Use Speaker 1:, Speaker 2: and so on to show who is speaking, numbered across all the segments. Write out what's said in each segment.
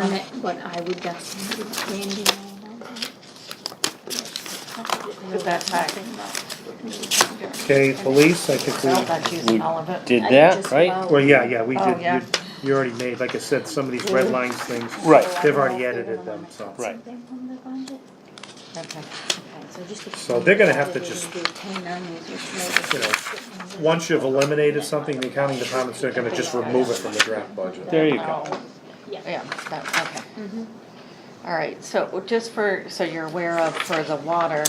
Speaker 1: on it, but I would just let Randy know about that.
Speaker 2: Put that back.
Speaker 3: Okay, police, I
Speaker 2: Well,
Speaker 3: think
Speaker 2: that's using all of it.
Speaker 4: Did
Speaker 1: I
Speaker 4: that,
Speaker 1: just
Speaker 4: right?
Speaker 1: about-
Speaker 3: we, well, yeah, yeah, we
Speaker 2: Oh,
Speaker 3: did,
Speaker 2: yeah.
Speaker 3: you, you already made, like I said, some of these red lines things.
Speaker 4: Right.
Speaker 3: They've already edited them, so.
Speaker 4: Right.
Speaker 1: Something from the budget.
Speaker 2: Okay.
Speaker 1: So just-
Speaker 3: So they're gonna have to just-
Speaker 1: Do ten onions, just
Speaker 3: You
Speaker 1: make
Speaker 3: know,
Speaker 1: it-
Speaker 3: once you've eliminated something, the accounting department's are gonna just remove it from the draft budget.
Speaker 4: There you go.
Speaker 2: Oh,
Speaker 1: Yeah.
Speaker 2: Yeah, that, okay.
Speaker 1: Mm-hmm.
Speaker 2: All right, so just for, so you're aware of, for the water,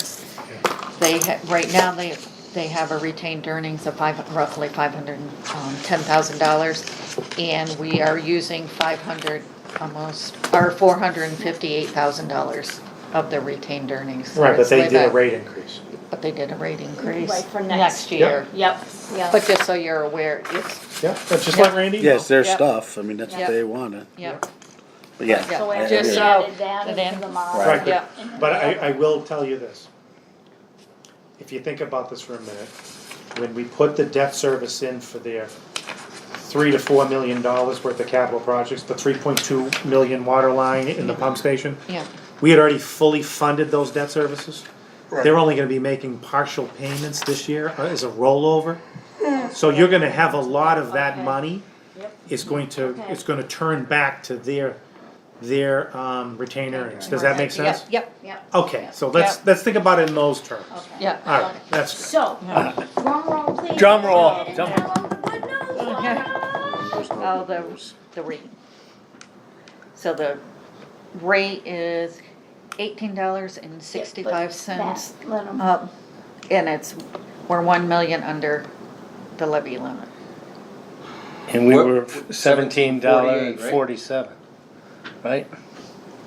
Speaker 2: they, ha- right now, they, they have a retained earnings of five, roughly five hundred and um, ten thousand dollars. And we are using five hundred, almost, or four hundred and fifty-eight thousand dollars of the retained earnings. So
Speaker 3: Right, but
Speaker 2: it's
Speaker 3: they
Speaker 2: way
Speaker 3: did a
Speaker 2: back.
Speaker 3: rate increase.
Speaker 2: But they did a rate increase.
Speaker 1: Right, for next-
Speaker 2: Next
Speaker 3: Yep.
Speaker 2: year.
Speaker 1: Yep, yeah.
Speaker 2: But just so you're aware, it's,
Speaker 3: Yeah, that's just like Randy.
Speaker 5: Yeah, it's their
Speaker 2: Yep.
Speaker 5: stuff, I mean, that's
Speaker 2: Yep.
Speaker 5: what they wanted,
Speaker 2: yeah,
Speaker 5: but yeah.
Speaker 2: Yeah.
Speaker 1: So uh,
Speaker 5: I- I
Speaker 1: after
Speaker 5: agree.
Speaker 1: we
Speaker 2: So-
Speaker 1: added that
Speaker 2: and
Speaker 1: into the
Speaker 2: then-
Speaker 1: model.
Speaker 5: Right.
Speaker 3: Right, but-
Speaker 2: yeah,
Speaker 3: But I, I will tell you this. If you think about this for a minute, when we put the debt service in for their three to four million dollars worth of capital projects, the three point two million water line and the pump station,
Speaker 2: yeah,
Speaker 3: we had already fully funded those debt services. They're only gonna be making partial payments this year uh, as a rollover. So you're gonna have a lot of that
Speaker 1: Okay.
Speaker 3: money
Speaker 1: Yep.
Speaker 3: is going to,
Speaker 1: Okay.
Speaker 3: is gonna turn back to their, their, um, retained earnings. Does that make
Speaker 2: yeah,
Speaker 3: sense?
Speaker 2: yep,
Speaker 1: Yep.
Speaker 3: Okay, so let's,
Speaker 2: Yeah.
Speaker 3: let's think about it in those terms.
Speaker 1: Okay.
Speaker 2: yeah.
Speaker 3: All right, that's, good.
Speaker 1: So, drum roll please.
Speaker 4: Drum
Speaker 1: Go
Speaker 4: roll.
Speaker 1: ahead and
Speaker 4: Drum-
Speaker 1: tell 'em the good news.
Speaker 5: There's
Speaker 2: Oh,
Speaker 5: no
Speaker 2: the,
Speaker 5: rules.
Speaker 2: the rate. So the rate is eighteen dollars and sixty-five cents
Speaker 1: That, Let 'em-
Speaker 2: up, and it's, we're one million under the levy limit.
Speaker 4: And we
Speaker 6: What-
Speaker 4: were seventeen dollar and
Speaker 6: 17.48, right?
Speaker 4: forty-seven, right?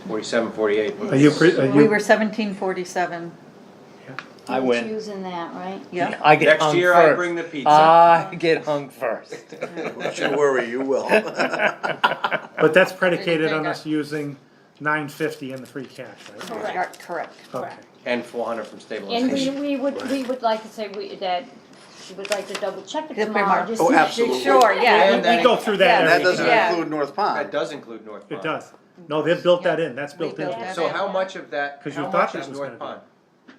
Speaker 6: Forty-seven, forty-eight.
Speaker 3: are you, pre- are
Speaker 2: We were
Speaker 3: you,
Speaker 2: seventeen forty-seven,
Speaker 4: I
Speaker 1: he's
Speaker 4: win.
Speaker 1: Using that, right?
Speaker 2: yeah,
Speaker 4: I get
Speaker 6: Next
Speaker 4: hung
Speaker 6: year I
Speaker 4: first. Uh,
Speaker 6: bring the pizza.
Speaker 4: I get hung first.
Speaker 5: Don't you worry, you will.
Speaker 3: but that's predicated on us using nine fifty in the free cash, right?
Speaker 2: You're correct.
Speaker 3: Okay.
Speaker 6: And four hundred from
Speaker 1: And we,
Speaker 6: stabilization.
Speaker 1: we would, we would like to say we, that, we would like to double check it
Speaker 2: Just
Speaker 1: tomorrow.
Speaker 2: remark-
Speaker 1: just
Speaker 5: Oh,
Speaker 1: to-
Speaker 5: absolutely.
Speaker 2: Sure, yeah,
Speaker 6: And
Speaker 3: We go through that
Speaker 5: And that
Speaker 3: every,
Speaker 5: doesn't
Speaker 2: Yeah.
Speaker 5: include North
Speaker 6: That
Speaker 5: Pond.
Speaker 6: does include North Pond.
Speaker 3: it does. No, they've built that in, that's built in.
Speaker 2: built that
Speaker 6: So how much of that,
Speaker 3: 'Cause you
Speaker 6: how
Speaker 3: thought
Speaker 6: much
Speaker 3: this
Speaker 6: is
Speaker 3: was gonna
Speaker 6: North Pond?
Speaker 3: be-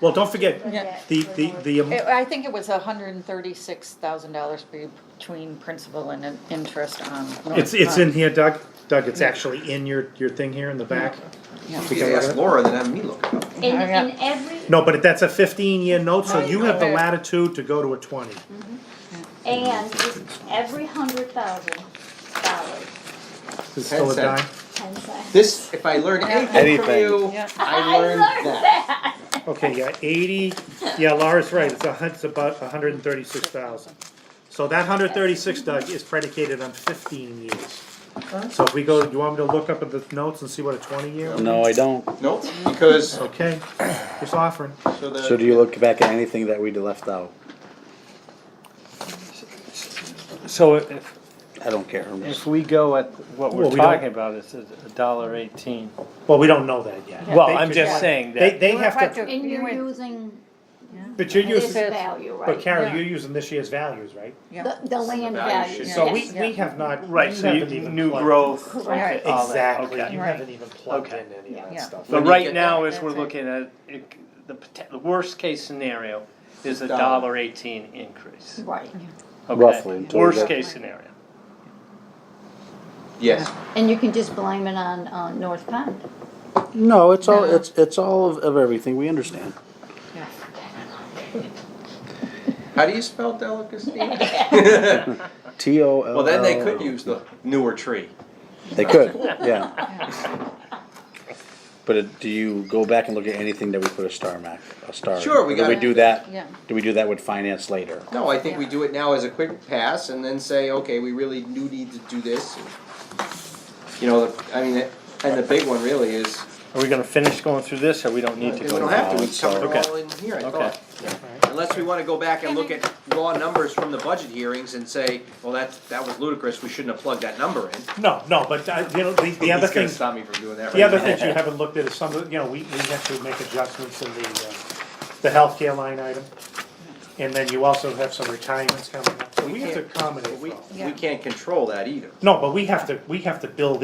Speaker 3: Well, don't forget,
Speaker 2: Yeah.
Speaker 3: the, the, the, um,
Speaker 2: It-
Speaker 3: am-
Speaker 2: I think it was hundred and thirty-six thousand dollars between principal and in- interest on. North
Speaker 3: it's, it's
Speaker 2: Front.
Speaker 3: in here, Doug, Doug, it's actually in your, your thing here in the back.
Speaker 2: Yeah.
Speaker 6: You can ask Laura, then have me look it up.
Speaker 1: And, and every,
Speaker 3: No, but that's a fifteen-year note, so you have the latitude to go to a twenty.
Speaker 1: and every hundred thousand dollars,
Speaker 3: Is it still a
Speaker 6: Ten
Speaker 3: dime?
Speaker 6: cents.
Speaker 1: ten cents.
Speaker 6: This, if I learn anything from
Speaker 5: Anything.
Speaker 6: you,
Speaker 2: Yeah.
Speaker 6: I learned that.
Speaker 3: Okay, yeah, eighty, yeah, Laura's right, it's a hun, it's about a hundred and thirty-six thousand. So that hundred thirty-six, Doug, is predicated on fifteen years. So if we go, you want me to look up at the notes and see what a twenty-year?
Speaker 5: No, I don't.
Speaker 6: Nope, because,
Speaker 3: Okay, just offering.
Speaker 6: so
Speaker 5: So do
Speaker 6: the,
Speaker 5: you look back at anything that we left out?
Speaker 4: So if,
Speaker 5: I don't care. I'm just-
Speaker 4: if we go at what we're
Speaker 3: Well, we don't-
Speaker 4: talking about, it's a dollar eighteen.
Speaker 3: Well, we don't know that yet.
Speaker 4: Well,
Speaker 3: They
Speaker 4: I'm
Speaker 3: could-
Speaker 4: just saying
Speaker 3: They,
Speaker 4: that,
Speaker 3: they have to,
Speaker 1: And you're using
Speaker 3: but you're
Speaker 1: this
Speaker 3: using,
Speaker 2: It's-
Speaker 1: value, right?
Speaker 3: but Carol,
Speaker 2: yeah.
Speaker 3: you're using this year's values, right?
Speaker 2: Yeah.
Speaker 1: The, the land
Speaker 6: value
Speaker 1: value.
Speaker 6: should-
Speaker 3: So we,
Speaker 2: Yes.
Speaker 3: we have not, we
Speaker 4: right, so you,
Speaker 3: haven't even
Speaker 4: new
Speaker 3: plugged-
Speaker 4: growth.
Speaker 1: Correct.
Speaker 2: Right.
Speaker 4: all that,
Speaker 3: Exactly,
Speaker 4: okay.
Speaker 3: you
Speaker 2: Right.
Speaker 3: haven't even plugged
Speaker 4: Okay.
Speaker 3: in any of that
Speaker 2: Yeah.
Speaker 3: stuff.
Speaker 4: But
Speaker 6: When you
Speaker 4: right
Speaker 6: get
Speaker 4: now,
Speaker 6: that-
Speaker 4: as we're
Speaker 2: That's it.
Speaker 4: looking at, it, the, poten- the worst case scenario is a dollar
Speaker 6: Dollar.
Speaker 4: eighteen increase.
Speaker 1: Right,
Speaker 4: Okay.
Speaker 5: Roughly, until we
Speaker 4: Worst
Speaker 5: get-
Speaker 4: case scenario.
Speaker 6: yes,
Speaker 1: and you can just blame it on, uh, North Pond.
Speaker 5: No, it's all, it's, it's all of, of everything, we understand.
Speaker 2: Yeah.
Speaker 6: how do you spell delicacy?
Speaker 5: T O L L.
Speaker 6: Well, then they could use the newer tree.
Speaker 5: They could, yeah. But it- do you go back and look at anything that we put a star mark, a star?
Speaker 6: Sure, we
Speaker 5: Do we
Speaker 6: got-
Speaker 5: do that?
Speaker 2: Yeah.
Speaker 5: Do we do that with finance later?
Speaker 6: No, I think we do it now as a quick pass and then say, okay, we really do need to do this. You know, the- I mean, and the big one really is,
Speaker 4: Are we gonna finish going through this, or we don't
Speaker 6: we
Speaker 4: need to go?
Speaker 6: don't have to, we
Speaker 5: so-
Speaker 6: covered it all in here, I
Speaker 4: Okay.
Speaker 6: thought. Unless we wanna go back and look at raw numbers from the budget hearings and say, well, that, that was ludicrous, we shouldn't have plugged that number in.
Speaker 3: No, no, but, uh, you know, the, the
Speaker 6: He's
Speaker 3: other
Speaker 6: gonna
Speaker 3: thing,
Speaker 6: stop me from doing that right
Speaker 3: The other
Speaker 6: now.
Speaker 3: things you haven't looked at is some of, the- you know, we, we have to make adjustments in the, uh, the healthcare line item. And then you also have some retirements coming up, so we have to accommodate.
Speaker 6: We,
Speaker 3: all.
Speaker 6: we can't control that either.
Speaker 3: No, but we have to, we have to build